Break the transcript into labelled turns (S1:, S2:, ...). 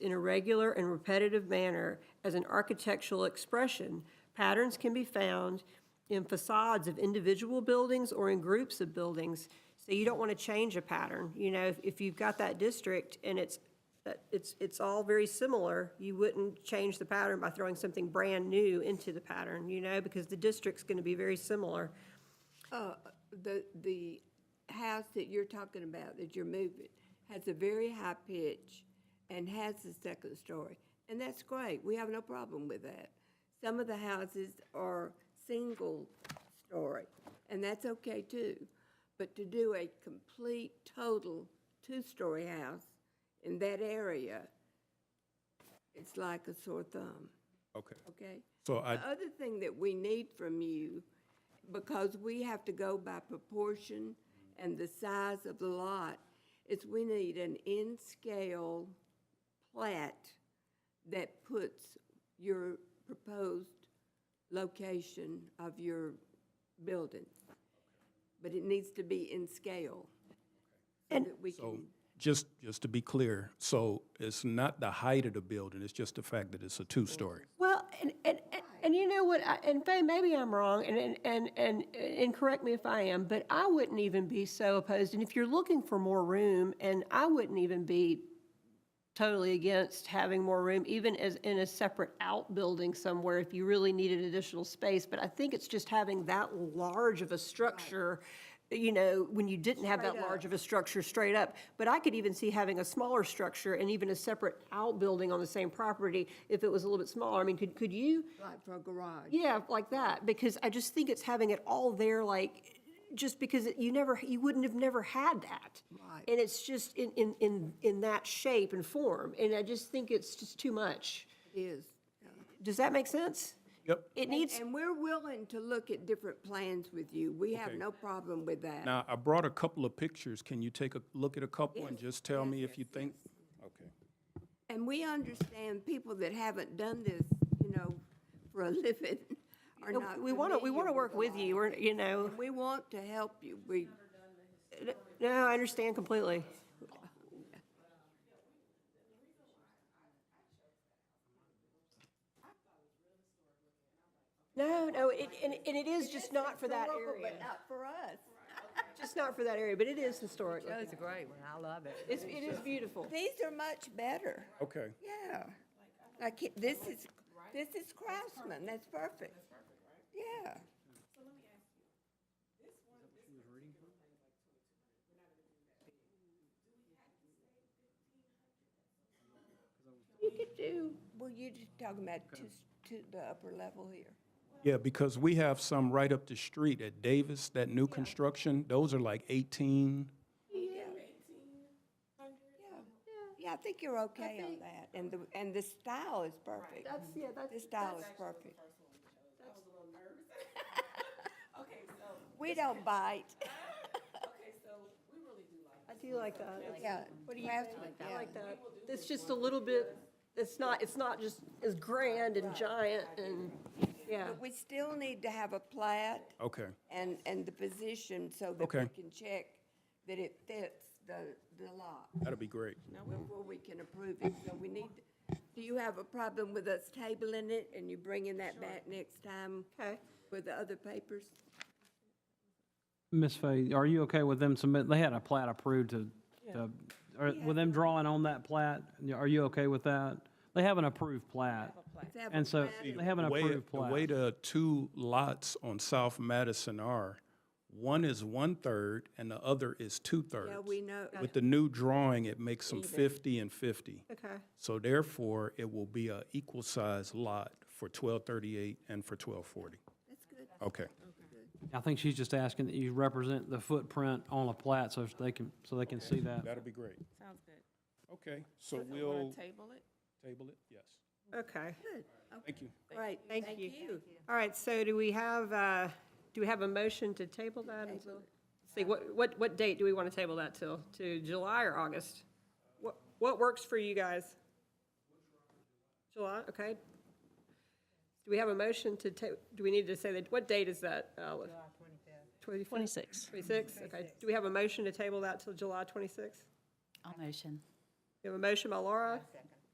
S1: in a regular and repetitive manner as an architectural expression, patterns can be found in facades of individual buildings or in groups of buildings. So you don't want to change a pattern. You know, if, if you've got that district and it's, that- it's, it's all very similar, you wouldn't change the pattern by throwing something brand new into the pattern, you know, because the district's going to be very similar.
S2: The, the house that you're talking about, that you're moving, has a very high pitch and has a second story. And that's great, we have no problem with that. Some of the houses are single story, and that's okay too. But to do a complete, total two-story house in that area, it's like a sore thumb,
S3: Okay.
S2: Uh, okay?
S3: So I,
S2: The other thing that we need from you, because we have to go by proportion and the size of the lot, is we need an in-scale plat that puts your proposed location of your building. But it needs to be in scale. so
S1: And-
S2: that we
S3: so,
S2: can-
S3: just, just to be clear, so it's not the height of the building, it's just the fact that it's a two-story.
S1: Well, and, and, and- and you know what, I- and Fay, maybe I'm wrong, and, and, and, and, and correct me if I am, but I wouldn't even be so opposed, and if you're looking for more room, and I wouldn't even be totally against having more room, even as, in a separate outbuilding somewhere, if you really needed additional space, but I think it's just having that large of a structure, you know, when you didn't have that large of a structure straight up. But I could even see having a smaller structure and even a separate outbuilding on the same property if it was a little bit smaller. I mean, could, could you?
S2: Like for a garage.
S1: Yeah, like that, because I just think it's having it all there, like, just because it- you never, you wouldn't have never had that.
S2: Right.
S1: And it's just in, in, in, in that shape and form, and I just think it's just too much.
S2: It is.
S1: Does that make sense?
S3: Yep.
S1: It needs,
S2: And we're willing to look at different plans with you. We have
S3: Okay.
S2: no problem with that.
S3: Now, I brought a couple of pictures. Can you take a look at a couple and just tell me if you think? Okay.
S2: And we understand people that haven't done this, you know, for a living are not
S1: we want to, we want to
S2: familiar
S1: work
S2: a
S1: with
S2: lot.
S1: you, or, you know,
S2: We want to help you. We,
S1: no, I understand completely. No, no, it, and, and it is just not for that
S2: historical,
S1: area.
S2: but not for us.
S1: Just not for that area, but it is historic. looking.
S4: That's a great one, I love it.
S1: It's, it is beautiful.
S2: These are much better.
S3: Okay.
S2: Yeah. Like, it- this is, this is Craftsman. That's perfect. Yeah. You could do, well, you're just talking about to, to the upper level here.
S3: Yeah, because we have some right up the street at Davis, that new construction. Those are like 18.
S2: Yeah. Yeah. Yeah, I think you're okay on that. And the, and the style is perfect.
S1: That's, yeah, that's.
S2: The style is perfect.
S5: Okay, so,
S2: We don't bite.
S5: okay, so we really do like
S1: I do like that.
S2: Yeah. Craftsman,
S1: I
S2: yeah.
S1: like that. It's just a little bit, it's not, it's not just as grand and giant and, yeah.
S2: But we still need to have a plat
S3: Okay.
S2: and, and the position so that we
S3: Okay.
S2: can check that it fits the, the lot
S3: That'll be great.
S2: before we can approve it. So we need, do you have a problem with us tabling it and you bringing that back next time
S1: Okay.
S2: with the other papers?
S6: Miss Fay, are you okay with them submit, they had a plat approved to, to, or with them drawing on that plat? Are you okay with that? They have an approved plat.
S2: Let's have a
S6: And so
S2: plat.
S6: they have an
S3: The way-
S6: approved
S3: The way
S6: plat.
S3: the two lots on South Madison are, one is one-third and the other is two-thirds.
S2: Yeah, we know.
S3: With the new drawing, it makes them 50 and 50.
S1: Okay.
S3: So therefore, it will be a equal size lot for 1238 and for 1240.
S2: That's good.
S3: Okay.
S6: I think she's just asking that you represent the footprint on a plat so they can, so they can see that.
S3: That'll be great.
S5: Sounds good.
S3: Okay, so we'll
S5: Table it?
S3: table it, yes.
S1: Okay.
S3: Thank you.
S2: Right.
S1: Thank you. All right, so do we have, uh, do we have a motion to table that until? See, what, what, what date do we want to table that till? To July or August? What, what works for you guys? July, okay. Do we have a motion to ta, do we need to say that, what date is that, Olive? July twenty-fifth.
S7: Twenty-six.
S1: Twenty-six, okay. Do we have a motion to table that till July twenty-sixth?
S7: I'll motion.
S1: We have a motion by Laura,